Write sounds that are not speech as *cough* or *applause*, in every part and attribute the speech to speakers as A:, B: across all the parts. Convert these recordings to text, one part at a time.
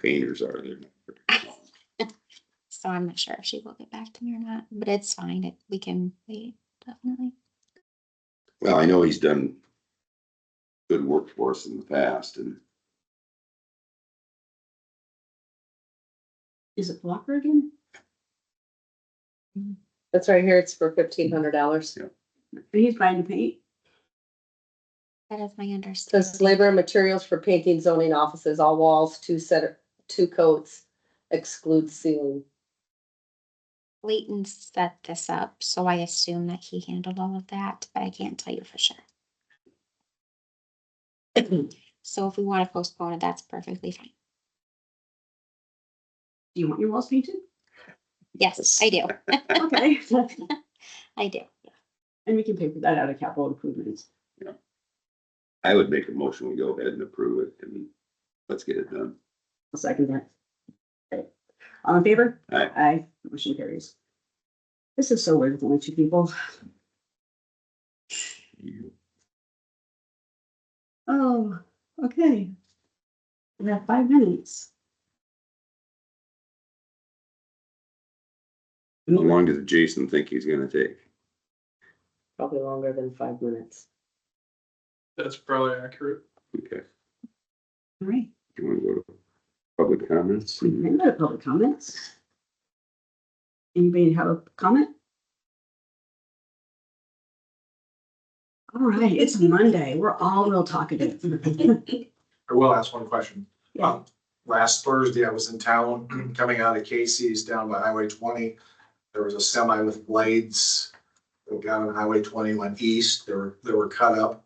A: painters are. They're not very strong.
B: So I'm not sure if she will get back to me or not, but it's fine. It, we can wait, definitely.
A: Well, I know he's done good work for us in the past and
C: Is it Blocker again?
D: That's right here. It's for fifteen hundred dollars.
C: He's buying the paint.
B: That is my understanding.
D: Says labor and materials for painting zoning offices, all walls, two set, two coats, exclude ceiling.
B: Leighton set this up, so I assume that he handled all of that, but I can't tell you for sure. So if we want to postpone it, that's perfectly fine.
C: Do you want your walls painted?
B: Yes, I do.
C: Okay.
B: I do.
C: And we can pay for that out of capital improvements.
A: I would make a motion. We go ahead and approve it and let's get it done.
C: I'll second that. Okay. All in favor?
A: Aye.
C: Aye, motion carries. This is so weird with only two people. Oh, okay. We have five minutes.
A: How long does Jason think he's gonna take?
D: Probably longer than five minutes.
E: That's probably accurate.
A: Okay,
C: All right,
A: do you wanna go to public comments?
C: we can go to public comments. Anybody have a comment? All right, it's Monday. We're all real talkative.
E: I will ask one question.
C: Yeah.
E: Um, Last Thursday, I was in town, *clears throat* coming out of Casey's down by Highway twenty. There was a semi with blades that got on Highway twenty, went east, they were, they were cut up.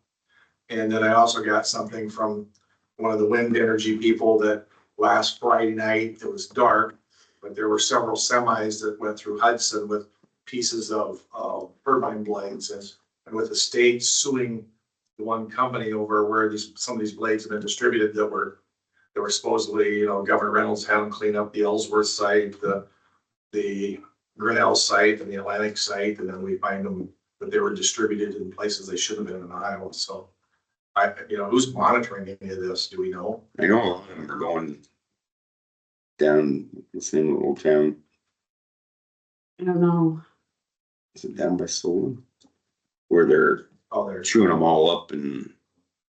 E: And then I also got something from one of the wind energy people that last Friday night, it was dark. But there were several semis that went through Hudson with pieces of, uh turbine blades and, and with the state suing the one company over where these, some of these blades have been distributed that were, that were supposedly, you know, Governor Reynolds had them clean up the Ellsworth site, the, the Grinnell site and the Atlantic site, and then we find them that they were distributed in places they shouldn't have been in Iowa, so. I, you know, who's monitoring any of this? Do we know?
A: I know a lot of them are going down the same old town,
C: I don't know.
A: is it down by Solon? Where they're
E: Oh, they're
A: chewing them all up and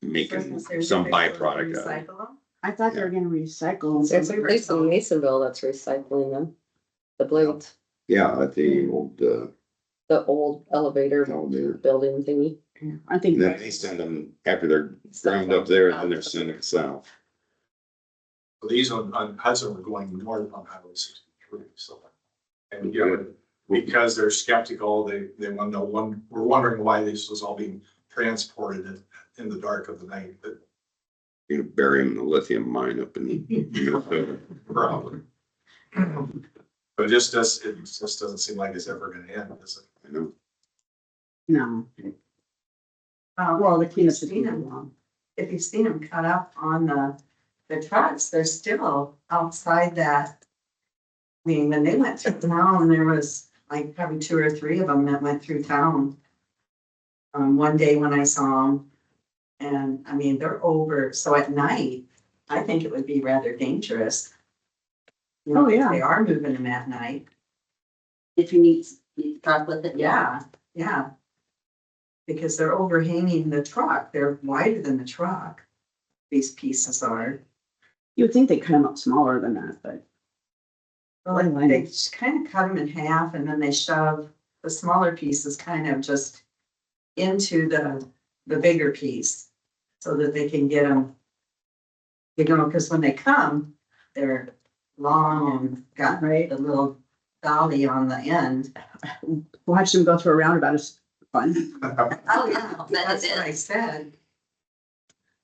A: making some byproduct out of it.
C: I thought they were gonna recycle.
D: There's a place in Masonville that's recycling them. The blades,
A: Yeah, at the old, uh,
D: the old elevator
A: elevator.
D: building thingy.
C: Yeah, I think.
A: And then they send them, after they're ground up there, then they're sending it south.
E: Well, These on, on Hudson were going north on Highway sixty-three, so. And, you know, because they're skeptical, they, they want to know, one, we're wondering why this was all being transported in, in the dark of the night, but
A: You're gonna bury him in the lithium mine up in Minnesota.
E: probably. But it just does, it just doesn't seem like it's ever gonna end, is it?
A: I know.
C: No. Uh, well, the cleanup's been
F: Christina.
C: long.
F: if you've seen them cut up on the, the trucks, they're still outside that. I mean, when they went through town, there was like probably two or three of them that went through town. Um, one day when I saw them, and I mean, they're over, so at night, I think it would be rather dangerous. You know,
C: Oh,
F: if
C: yeah.
F: They are moving them at night,
G: If you need, need to talk with it.
F: yeah, yeah. Because they're overhanging the truck, they're wider than the truck, these pieces are.
C: You would think they cut them up smaller than that, but
F: Well,
G: Oh,
C: Or
F: like,
C: line
F: they
C: it.
F: just kind of cut them in half and then they shove the smaller pieces kind of just into the, the bigger piece so that they can get them. You know, because when they come, they're long and got
C: right,
F: the little dolly on the end.
C: watch them go through a roundabout is fun.
G: Oh, yeah, that
F: That's
G: it
F: what I
G: is.
F: said.
E: *laughs*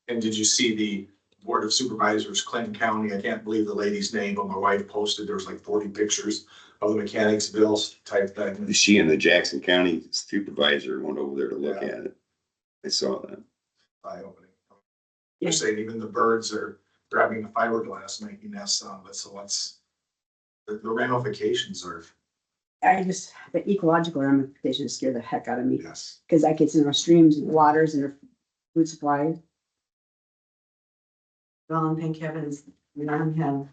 E: And did you see the Board of Supervisors, Clinton County, I can't believe the lady's name, but my wife posted, there was like forty pictures of the mechanics bills type thing.
A: She and the Jackson County supervisor went over there to look at it. I saw that.
E: eye opening. You're saying even the birds are grabbing the fiberglass, making nests out of it, so what's, the the ramifications are,
C: I just, the ecological ramifications scare the heck out of me,
E: yes.
C: because that gets in our streams and waters and our food supply.
F: Well, and thank heavens, we don't have